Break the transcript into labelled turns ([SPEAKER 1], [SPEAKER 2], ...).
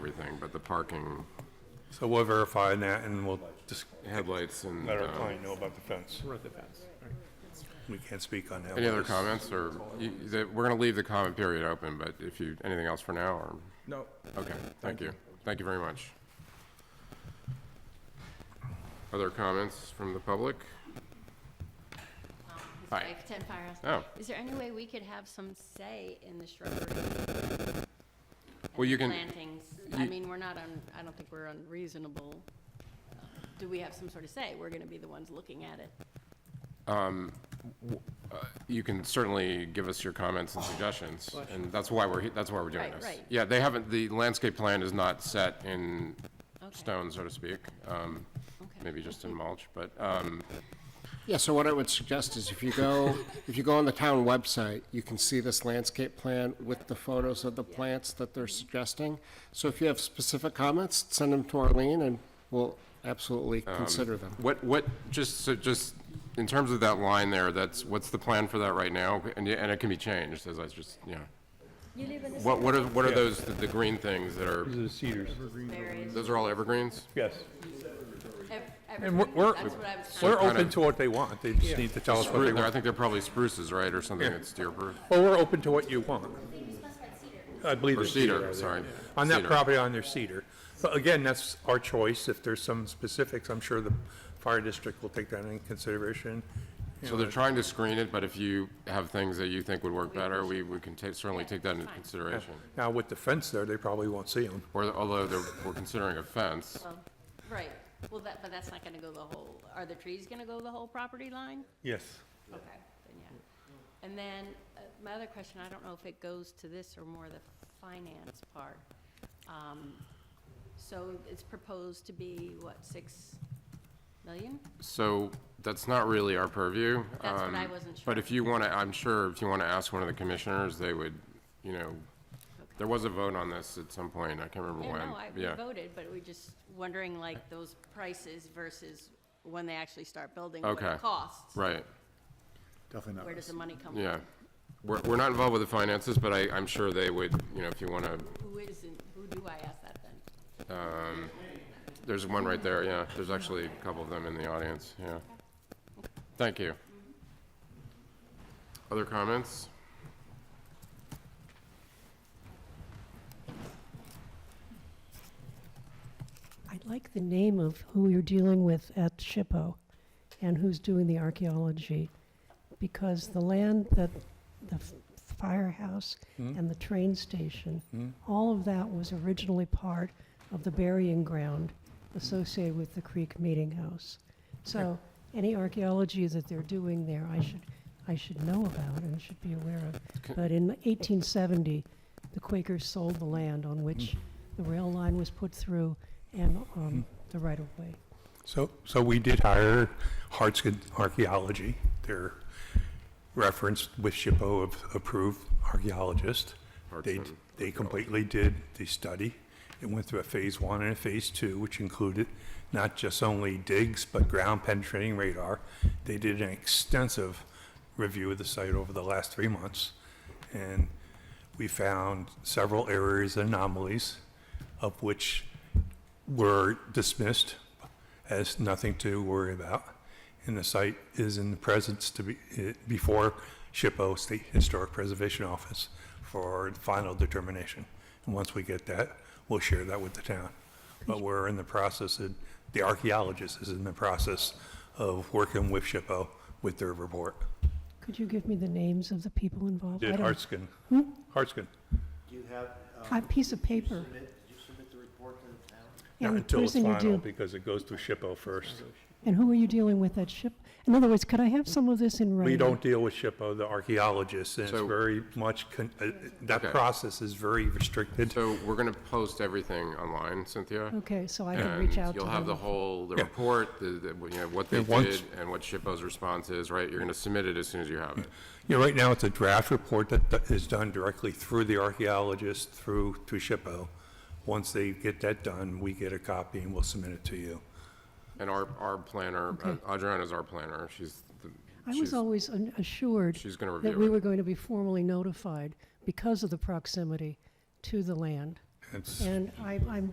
[SPEAKER 1] everything, but the parking,
[SPEAKER 2] So we'll verify that and we'll just
[SPEAKER 1] headlights and,
[SPEAKER 2] let our
[SPEAKER 1] uh,
[SPEAKER 2] client know about the fence. We can't speak on that.
[SPEAKER 1] any other comments or, you, the- we're gonna leave the comment period open, but if you, anything else for now or?
[SPEAKER 3] No,
[SPEAKER 1] Okay, thank you. Thank you very much. Other comments from the public?
[SPEAKER 4] Um,
[SPEAKER 1] Hi.
[SPEAKER 4] Like 10 Firehouse.
[SPEAKER 1] Oh.
[SPEAKER 4] Is there any way we could have some say in the shrubbery?
[SPEAKER 1] Well, you can-
[SPEAKER 4] Plantings, I
[SPEAKER 1] you-
[SPEAKER 4] mean, we're not on, I don't think we're unreasonable. Do we have some sort of say? We're gonna be the ones looking at it.
[SPEAKER 1] You can certainly give us your comments and suggestions, and that's why we're, he- that's why we're doing
[SPEAKER 4] Right,
[SPEAKER 1] this.
[SPEAKER 4] right.
[SPEAKER 1] Yeah, they haven't, the landscape plan is not set in
[SPEAKER 4] Okay.
[SPEAKER 1] stone, so to speak, um,
[SPEAKER 4] Okay.
[SPEAKER 1] maybe just in mulch, but, um,
[SPEAKER 5] Yeah, so what I would suggest is if you go, if you go on the town website, you can see this landscape plan with the photos of the plants that they're suggesting. So if you have specific comments, send them to Arlene and we'll absolutely consider them.
[SPEAKER 1] what, what, just, so just, in terms of that line there, that's, what's the plan for that right now? And, y- and it can be changed, as I was just, yeah. What, what are, what are those, the- the green things that are,
[SPEAKER 2] The cedars.
[SPEAKER 4] Berries,
[SPEAKER 1] those are all evergreens?
[SPEAKER 2] Yes.
[SPEAKER 4] ev-
[SPEAKER 2] And we're- we're,
[SPEAKER 4] evergreen, that's what I was trying
[SPEAKER 2] we're
[SPEAKER 4] to.
[SPEAKER 2] open to what they want. They just need to tell us what they
[SPEAKER 1] Spru- I
[SPEAKER 2] want.
[SPEAKER 1] think they're probably spruces, right, or something that's deer proof?
[SPEAKER 2] Well, we're open to what you want. I believe
[SPEAKER 1] Or
[SPEAKER 2] it's
[SPEAKER 1] cedar,
[SPEAKER 2] cedar.
[SPEAKER 1] sorry.
[SPEAKER 2] On that
[SPEAKER 1] Cedar.
[SPEAKER 2] property on their cedar. But again, that's our choice. If there's some specifics, I'm sure the fire district will take that into consideration. You
[SPEAKER 1] So
[SPEAKER 2] know,
[SPEAKER 1] they're trying to screen it, but if you have things that you think would work better, we, we can ta- certainly take that into consideration.
[SPEAKER 2] Now, with the fence there, they probably won't see them.
[SPEAKER 1] Or, although they're, we're considering a fence,
[SPEAKER 4] Well, Right, well, that, but that's not gonna go the whole, are the trees gonna go the whole property line?
[SPEAKER 2] Yes.
[SPEAKER 4] Okay, then yeah. And then, uh, my other question, I don't know if it goes to this or more the finance part. Um, So it's proposed to be, what, six million?
[SPEAKER 1] so that's not really our purview.
[SPEAKER 4] That's what I
[SPEAKER 1] um,
[SPEAKER 4] wasn't
[SPEAKER 1] But
[SPEAKER 4] sure.
[SPEAKER 1] if you want to, I'm sure if you want to ask one of the commissioners, they would, you know, there was a vote on this at some point, I can't remember
[SPEAKER 4] Yeah,
[SPEAKER 1] when.
[SPEAKER 4] no, I we
[SPEAKER 1] Yeah.
[SPEAKER 4] voted, but we're just wondering, like, those prices versus when they actually start building, what
[SPEAKER 1] Okay.
[SPEAKER 4] it costs.
[SPEAKER 1] Right,
[SPEAKER 6] Definitely
[SPEAKER 4] Where does the money come from?
[SPEAKER 1] yeah. We're, we're not involved with the finances, but I, I'm sure they would, you know, if you want to,
[SPEAKER 4] Who isn't, who do I ask that then?
[SPEAKER 1] there's one right there, yeah. There's actually a couple of them in the audience, yeah. Thank you. Other comments?
[SPEAKER 7] I like the name of who you're dealing with at Shippo and who's doing the archaeology, because the land that, the f- firehouse and the train station, all of that was originally part of the burying ground associated with the Creek Meeting House. So any archaeology that they're doing there, I should, I should know about and should be aware of. But in 1870, the Quakers sold the land on which the rail line was put through and um, the right-of-way.
[SPEAKER 2] So, so we did hire Hartsgen Archaeology. They're referenced with SHPO of approved archaeologist. They,
[SPEAKER 1] Hartsgen
[SPEAKER 2] they completely did the study. It went through a phase one and a phase two, which included not just only digs, but ground penetrating radar. They did an extensive review of the site over the last three months. And we found several areas and anomalies, of which were dismissed as nothing to worry about. And the site is in the presence to be, eh, before SHPO, State Historic Preservation Office, for final determination. And once we get that, we'll share that with the town. But we're in the process, and the archaeologist is in the process of working with SHPO with their report.
[SPEAKER 7] Could you give me the names of the people involved? I
[SPEAKER 2] Did
[SPEAKER 7] don't-
[SPEAKER 2] Hartsgen, Hartsgen,
[SPEAKER 6] Do you have, um,
[SPEAKER 7] A piece of
[SPEAKER 6] did you
[SPEAKER 7] paper.
[SPEAKER 6] submit- Did you submit the report to the town?
[SPEAKER 2] not
[SPEAKER 7] And the
[SPEAKER 2] until it's
[SPEAKER 7] person you
[SPEAKER 2] final,
[SPEAKER 7] deal,
[SPEAKER 2] because it goes through SHPO first.
[SPEAKER 7] and who are you dealing with at Ship? In other words, could I have some of this in writing?
[SPEAKER 2] We don't deal with SHPO, the archaeologists, and it's
[SPEAKER 1] So-
[SPEAKER 2] very much, con- uh, uh, that
[SPEAKER 1] Okay.
[SPEAKER 2] process is very restricted.
[SPEAKER 1] So we're going to post everything online, Cynthia.
[SPEAKER 7] Okay, so I can reach
[SPEAKER 1] and
[SPEAKER 7] out to them.
[SPEAKER 1] You'll have the whole, the report, the, the, you know, what they
[SPEAKER 2] And once-
[SPEAKER 1] did and what SHPO's response is, right? You're going to submit it as soon as you have it.
[SPEAKER 2] Yeah, right now, it's a draft report that that is done directly through the archaeologist, through, through SHPO. Once they get that done, we get a copy and we'll submit it to you.
[SPEAKER 1] And our, our planner, Adriana's our planner. She's, the-
[SPEAKER 7] I was
[SPEAKER 1] she's,
[SPEAKER 7] always an- assured
[SPEAKER 1] she's gonna
[SPEAKER 7] that
[SPEAKER 1] review
[SPEAKER 7] we
[SPEAKER 1] it.
[SPEAKER 7] were going to be formally notified because of the proximity to the land.
[SPEAKER 2] It's-
[SPEAKER 7] And I, I'm